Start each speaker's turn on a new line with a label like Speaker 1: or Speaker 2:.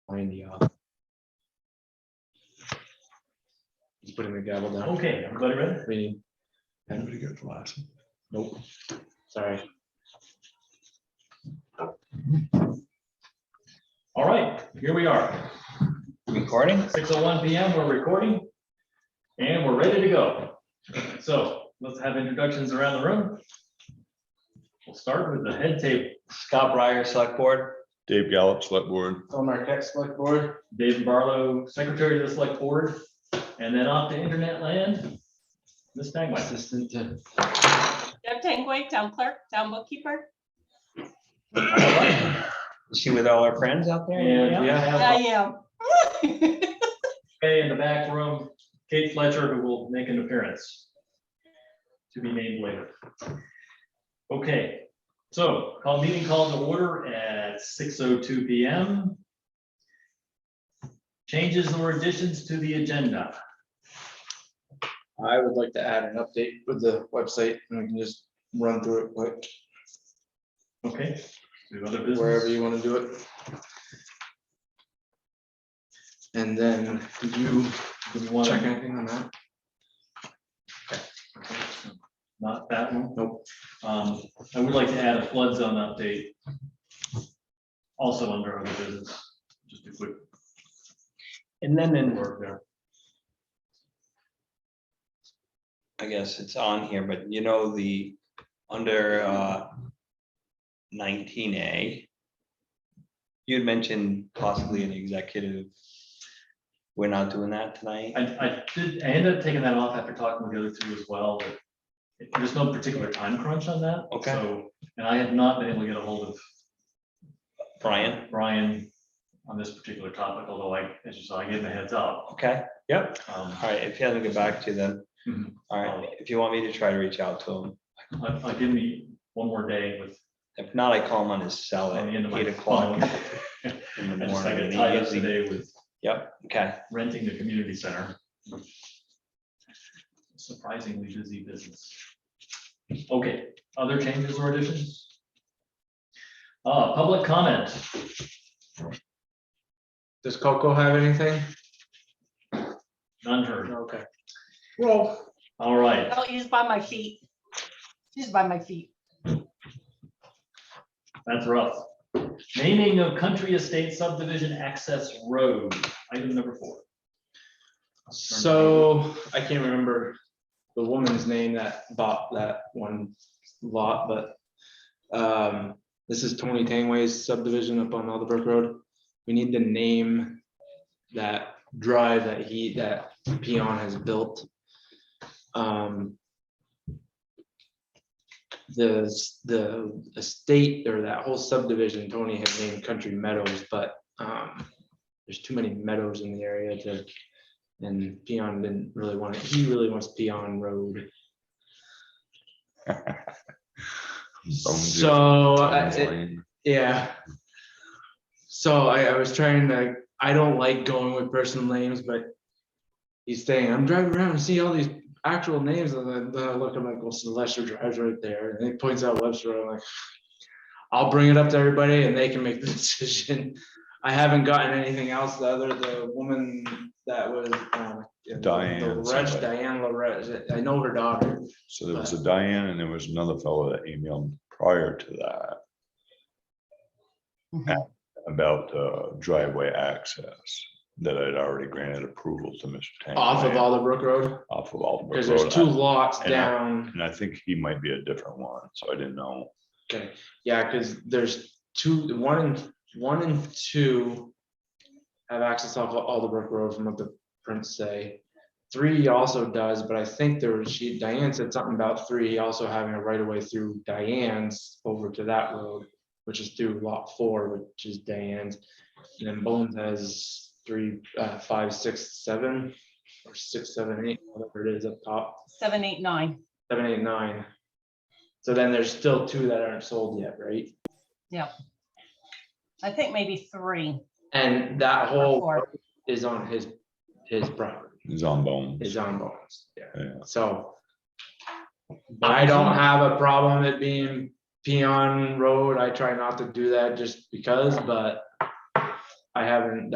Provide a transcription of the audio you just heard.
Speaker 1: find the uh, author. He's putting the gavel down.
Speaker 2: Okay, everybody ready?
Speaker 1: I mean,
Speaker 3: Anybody get the last? one?
Speaker 1: nope, sorry.
Speaker 2: All right, here we are. Recording? Six oh one P M, we're recording. And we're ready to go. So let's have introductions around the room. We'll start with the head table.
Speaker 4: Scott Breyer, Select Board.
Speaker 5: Dave Gallup, select board.
Speaker 1: Tom Marquette, select board.
Speaker 2: David Barlow, Secretary of the Select Board, and then off to internet land. Ms. Tangway.
Speaker 1: Assistant to.
Speaker 6: Deb Tangway, town clerk, town bookkeeper.
Speaker 4: Is she with all our friends out there?
Speaker 2: And we
Speaker 6: I
Speaker 2: have
Speaker 6: am.
Speaker 2: Kay in the back room, Kate Fletcher, who will make an appearance. To be named later. Okay, so call meeting called to order at six oh two P M. Changes or additions to the agenda.
Speaker 1: I would like to add an update with the website and we can just run through it quick,
Speaker 2: Okay. Do other
Speaker 1: wherever
Speaker 2: business.
Speaker 1: you want to do it. And then could you
Speaker 2: Do we want
Speaker 1: check
Speaker 2: to,
Speaker 1: anything on that?
Speaker 2: not that one?
Speaker 1: Nope.
Speaker 2: Um, I would like to add a flood zone update. Also under other business, just a quick
Speaker 4: And then in,
Speaker 2: word there.
Speaker 4: I guess it's on here, but you know, the, under uh, nineteen A, you had mentioned possibly an executive. We're not doing that tonight.
Speaker 2: I, I did, I ended up taking that off after talking with the other two as well. but it- There's no particular time crunch on that.
Speaker 4: Okay.
Speaker 2: So, and I have not been able to get a hold of
Speaker 4: Brian,
Speaker 2: Brian on this particular topic, although I, as you saw, I gave him a heads up.
Speaker 4: okay,
Speaker 2: Um,
Speaker 4: all right, if he hasn't get back to you then,
Speaker 2: Mhm.
Speaker 4: all right, if you want me to try to reach out to him.
Speaker 2: I'll, I'll uh, give me one more day with,
Speaker 4: If not, I call him on his cell
Speaker 2: on
Speaker 4: at
Speaker 2: the end of my.
Speaker 4: eight o'clock
Speaker 2: phone.
Speaker 4: in the
Speaker 2: I just, I
Speaker 4: morning.
Speaker 2: got
Speaker 4: and he
Speaker 2: tied up
Speaker 4: usually-
Speaker 2: today with
Speaker 4: Yep, okay,
Speaker 2: renting the community center. Surprisingly busy business. Okay, other changes or additions? Uh, public comment.
Speaker 1: Does Coco have anything?
Speaker 2: None heard.
Speaker 1: Okay. Well,
Speaker 2: All right.
Speaker 6: Don't use Oh, by my feet. Use by my feet.
Speaker 2: That's rough. Naming of country estate subdivision access road, item number four.
Speaker 1: So I can't remember the woman's name that bought that one lot, but um, this is Tony Tangway's subdivision up on Alderbrook Road. We need to name that drive that he, that Peon has built. Um, The, s- the estate or that whole subdivision, Tony had named Country Meadows, but um, there's too many meadows in the area to and Peon didn't really want it. He really wants Peon Road.
Speaker 5: Some do.
Speaker 1: So, I-
Speaker 5: Thomas
Speaker 1: Oh, it-
Speaker 5: Lane.
Speaker 1: yeah. So I, I was trying to, I don't like going with person names, but he's saying, I'm driving around and see all these actual names. And then then I look, I'm like, well, Sylvester Drive's right there. And he points out Webster. I'm like, I'll bring it up to everybody and they can make the decision. I haven't gotten anything else. The other, the woman that was. uh, the- the
Speaker 5: Diane
Speaker 1: Wretch,
Speaker 5: somebody.
Speaker 1: Diane LaRoche, I know her daughter.
Speaker 5: So there was a Diane and there was another fellow that emailed prior to that.
Speaker 1: Mm-hmm.
Speaker 5: About uh, driveway access that I'd already granted approval to Mr. Tang.
Speaker 1: Off of Alderbrook Road,
Speaker 5: Off of Alderbrook
Speaker 1: because there's
Speaker 5: Road.
Speaker 1: two lots
Speaker 5: and I-
Speaker 1: down,
Speaker 5: And I think he might be a different one, so I didn't know.
Speaker 1: okay, yeah, because there's two, one and, one and two. Have access off of Alderbrook Road from what the prints say. Three also does, but I think there was, she, Diane said something about three also having a right of way through Diane's over to that road. Which is through lot four, which is Diane's, and then Bones has three, uh, five, six, seven. Or six, seven, eight, whatever it is up top.
Speaker 6: Seven, eight, nine.
Speaker 1: seven, eight, nine. So then there's still two that aren't sold yet, right?
Speaker 6: I think maybe three.
Speaker 1: And that whole
Speaker 6: Four.
Speaker 1: is on his, his property,
Speaker 5: He's on bones.
Speaker 1: is on Bones, yeah,
Speaker 5: Yeah.
Speaker 1: so. I don't have a problem it being peon road, I try not to do that just because, but I haven't,